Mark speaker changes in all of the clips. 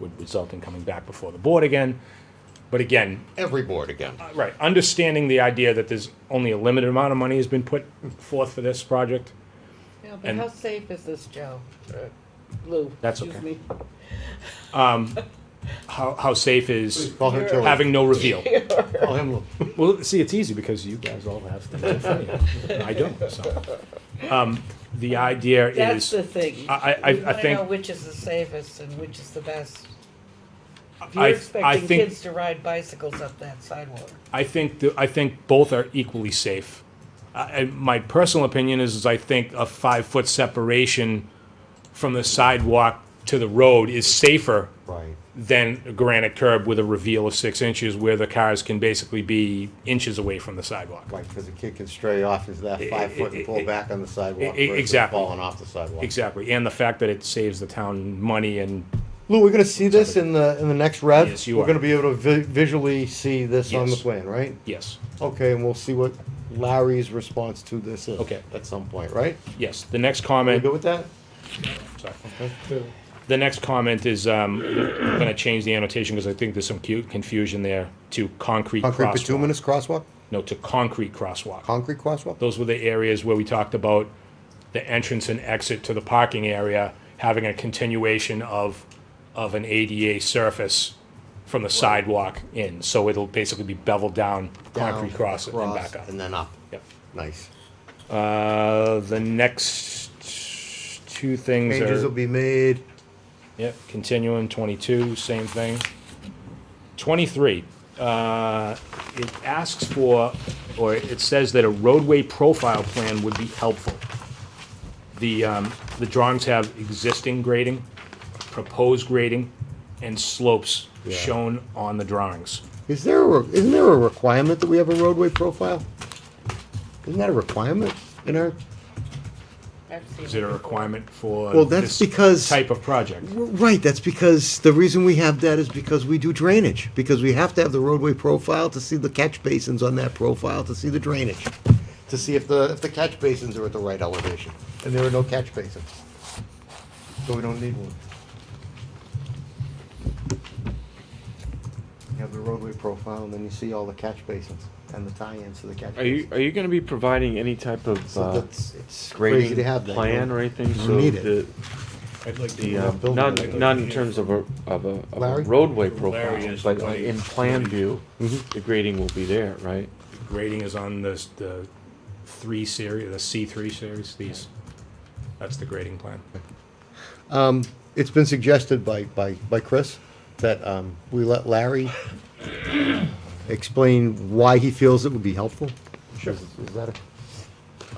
Speaker 1: would result in coming back before the board again. But again,
Speaker 2: every board again.
Speaker 1: right, understanding the idea that there's only a limited amount of money has been put forth for this project.
Speaker 3: Yeah, but
Speaker 1: And-
Speaker 3: how safe is this, Joe? Uh, Lou?
Speaker 1: That's
Speaker 3: excuse
Speaker 1: okay.
Speaker 3: me.
Speaker 1: How, how safe is
Speaker 2: Call him Joey.
Speaker 1: having no reveal?
Speaker 2: Call him Lou.
Speaker 1: Well, see, it's easy because you guys all have things in front of you. I don't, so. Um, The idea is,
Speaker 3: That's the thing.
Speaker 1: I, I, I
Speaker 3: We wanna
Speaker 1: think,
Speaker 3: know which is the safest and which is the best. If you're
Speaker 1: I, I
Speaker 3: expecting
Speaker 1: think,
Speaker 3: kids to ride bicycles up that sidewalk.
Speaker 1: I think, the- I think both are equally safe. I, I- my personal opinion is, is I think a five-foot separation from the sidewalk to the road is safer
Speaker 2: Right.
Speaker 1: than a granite curb with a reveal of six inches where the cars can basically be inches away from the sidewalk.
Speaker 2: Right, because a kid can stray off into that five foot and
Speaker 1: I-
Speaker 2: pull
Speaker 1: I-
Speaker 2: back on the sidewalk
Speaker 1: I- I-
Speaker 2: versus
Speaker 1: exactly.
Speaker 2: falling off the sidewalk.
Speaker 1: Exactly, and the fact that it saves the town money and
Speaker 2: Lou, we're gonna see this in the, in the next rev?
Speaker 1: Yes, you
Speaker 2: We're
Speaker 1: are.
Speaker 2: gonna be able to vi- visually see this on the
Speaker 1: Yes.
Speaker 2: plan, right?
Speaker 1: Yes,
Speaker 2: Okay, and we'll see what Larry's response to this is.
Speaker 1: Okay.
Speaker 2: At some point, right?
Speaker 1: yes. The next
Speaker 2: You
Speaker 1: comment,
Speaker 2: good with that?
Speaker 1: sorry. The next comment is, um, I'm gonna change the annotation because I think there's some cute confusion there to concrete
Speaker 2: Concrete
Speaker 1: crosswalk.
Speaker 2: bituminous crosswalk,
Speaker 1: No, to concrete crosswalk.
Speaker 2: concrete crosswalk?
Speaker 1: Those were the areas where we talked about the entrance and exit to the parking area having a continuation of, of an ADA surface from the sidewalk in. So it'll basically be beveled down, concrete
Speaker 2: Down,
Speaker 1: cross it and
Speaker 2: across,
Speaker 1: back up.
Speaker 2: And then up.
Speaker 1: Yep.
Speaker 2: Nice.
Speaker 1: Uh, the next two things are.
Speaker 2: Changes will be made.
Speaker 1: Yep, continuing, twenty-two, same thing. Twenty-three, uh, it asks for, or it says that a roadway profile plan would be helpful. The, um, the drawings have existing grading, proposed grading, and slopes
Speaker 2: Yeah.
Speaker 1: shown on the drawings.
Speaker 2: Is there, a re- isn't there a requirement that we have a roadway profile? Isn't that a requirement in our,
Speaker 3: I've seen
Speaker 1: Is it a
Speaker 3: before.
Speaker 1: requirement for?
Speaker 2: Well,
Speaker 1: this
Speaker 2: that's because-
Speaker 1: Type of project,
Speaker 2: right, that's because, the reason we have that is because we do drainage. Because we have to have the roadway profile to see the catch basins on that profile, to see the drainage. To see if the, if the catch basins are at the right elevation, and there are no catch basins. So we don't need one. You have the roadway profile, and then you see all the catch basins and the tie-ins to the catch
Speaker 4: Are you
Speaker 2: basins.
Speaker 4: are you going to be providing any type of
Speaker 2: So
Speaker 4: uh,
Speaker 2: that's, it's crazy
Speaker 4: grading
Speaker 2: to have that.
Speaker 4: plan or anything?
Speaker 2: You
Speaker 4: so
Speaker 2: need it.
Speaker 4: the,
Speaker 1: I'd like
Speaker 4: the
Speaker 2: We're
Speaker 4: uh,
Speaker 2: not building
Speaker 4: not
Speaker 2: it.
Speaker 4: not in terms of a of a, of a
Speaker 2: Larry?
Speaker 4: roadway
Speaker 1: Larry
Speaker 4: profile,
Speaker 1: is
Speaker 4: but
Speaker 1: quite-
Speaker 4: in plan view,
Speaker 2: Mm-hmm.
Speaker 4: the grading will be there, right?
Speaker 1: grading is on this, the three series, the C three series, these, that's the grading plan.
Speaker 2: It's been suggested by, by, by Chris that um, we let Larry explain why he feels it would be helpful. Sure. Is is that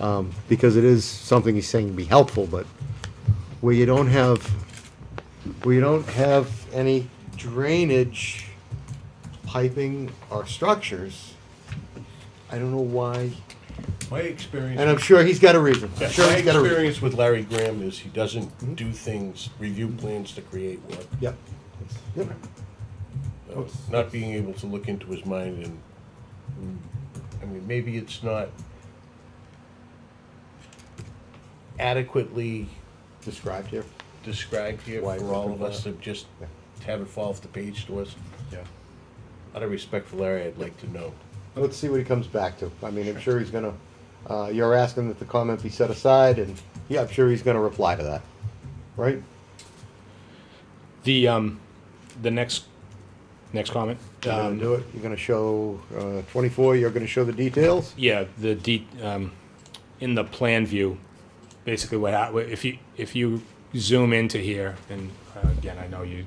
Speaker 2: a- um, Because it is something he's saying would be helpful, but where you don't have, where you don't have any drainage piping or structures, I don't know why,
Speaker 5: My experience,
Speaker 2: and I'm sure he's got a reason. I'm
Speaker 5: Yeah,
Speaker 2: sure
Speaker 5: my
Speaker 2: he's Mm-hmm. got a reason.
Speaker 5: experience with Larry Graham is he doesn't do things, review plans to create work.
Speaker 2: Yep. Yep. Oh.
Speaker 5: Uh, Not being able to look into his mind and, mm, I mean, maybe it's not adequately
Speaker 2: Described here.
Speaker 5: described here
Speaker 2: Why
Speaker 5: for
Speaker 2: we're
Speaker 5: all of
Speaker 2: doing
Speaker 5: us to just
Speaker 2: Yeah.
Speaker 5: have it fall off the page to us.
Speaker 2: Yeah.
Speaker 5: Out of respect for Larry, I'd like to know.
Speaker 2: Let's see what he comes back to. I mean, I'm sure he's gonna, uh, you're asking that the comment be set aside, and, yeah, I'm sure he's gonna reply to that, right?
Speaker 1: The um, the next next comment.
Speaker 2: You're gonna
Speaker 1: Um,
Speaker 2: do it, you're gonna show, uh, twenty-four, you're gonna show the details?
Speaker 1: yeah, the de- um, in the plan view, basically what hap- if you if you zoom into here and uh, again I know you.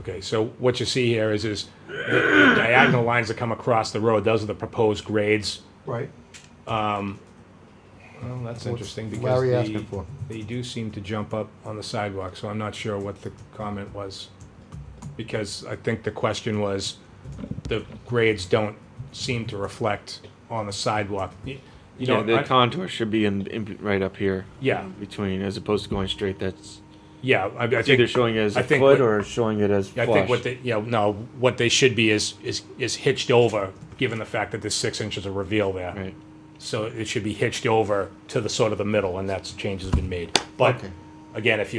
Speaker 1: Okay, so what you see here is is the the diagonal lines that come across the road. Those are the proposed grades.
Speaker 2: Right.
Speaker 1: Well, that's
Speaker 2: What's
Speaker 1: interesting because
Speaker 2: Larry
Speaker 1: the-
Speaker 2: asking for?
Speaker 1: they do seem to jump up on the sidewalk, so I'm not sure what the comment was. Because I think the question was, the grades don't seem to reflect on the sidewalk. You you
Speaker 4: yeah,
Speaker 1: know,
Speaker 4: the
Speaker 1: I-
Speaker 4: contour should be in, in right up here.
Speaker 1: Yeah.
Speaker 4: between as opposed to going straight. That's
Speaker 1: yeah, I, I
Speaker 4: it's either
Speaker 1: think,
Speaker 4: showing it as
Speaker 1: I
Speaker 4: a
Speaker 1: think
Speaker 4: foot
Speaker 1: what-
Speaker 4: or showing it as
Speaker 1: I
Speaker 4: flush.
Speaker 1: think what they, you know, no, what they should be is, is, is hitched over, given the fact that there's six inches of reveal there.
Speaker 4: right.
Speaker 1: So it should be hitched over to the sort of the middle, and that's, change has been made. But
Speaker 2: Okay.
Speaker 1: again, if you